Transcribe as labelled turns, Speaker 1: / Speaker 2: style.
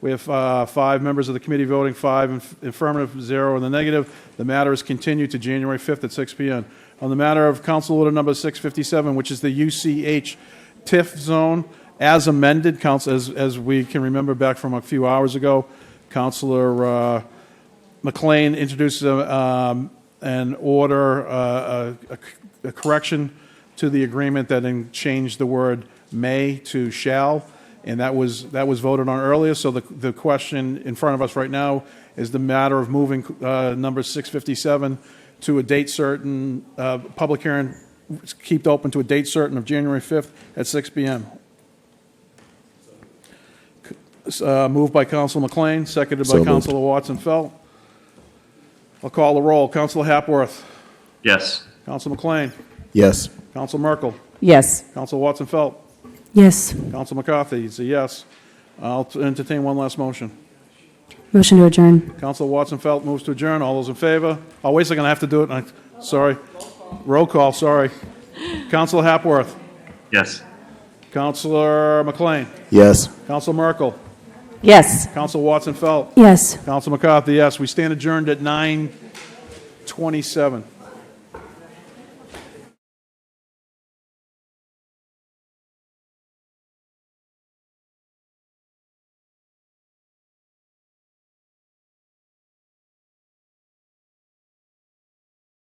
Speaker 1: We have uh, five members of the committee voting, five in- affirmative, zero in the negative. The matter is continued to January 5th at 6 PM. On the matter of Council Order Number 657, which is the UCH TIF zone, as amended, council, as, as we can remember back from a few hours ago, Councilor uh, McLean introduces a, um, an order, uh, a- a a correction to the agreement that then changed the word "may" to "shall," and that was, that was voted on earlier. So the, the question in front of us right now is the matter of moving uh, number 657 to a date certain, uh, public hearing, kept open to a date certain of January 5th at 6 PM. Uh, Moved by Counsel McLean, seconded
Speaker 2: So
Speaker 1: by
Speaker 2: moved.
Speaker 1: Counsel Watson Felt. I'll call the roll. Counsel Hapworth,
Speaker 3: Yes.
Speaker 1: Counsel McLean,
Speaker 2: Yes.
Speaker 1: Counsel Merkel,
Speaker 4: Yes.
Speaker 1: Counsel Watson Felt,
Speaker 4: Yes.
Speaker 1: Counsel McCarthy, it's a yes. I'll entertain one last motion.
Speaker 4: Motion to adjourn.
Speaker 1: Counsel Watson Felt moves to adjourn. All those in favor? Oh, wait a second, I have to do it. I- Sorry. Roll call, sorry. Counsel Hapworth,
Speaker 3: Yes.
Speaker 1: Counselor McLean,
Speaker 2: Yes.
Speaker 1: Counsel Merkel,
Speaker 4: Yes.
Speaker 1: Counsel Watson Felt,
Speaker 4: Yes.
Speaker 1: Counsel McCarthy, yes. We stand adjourned at 9:27.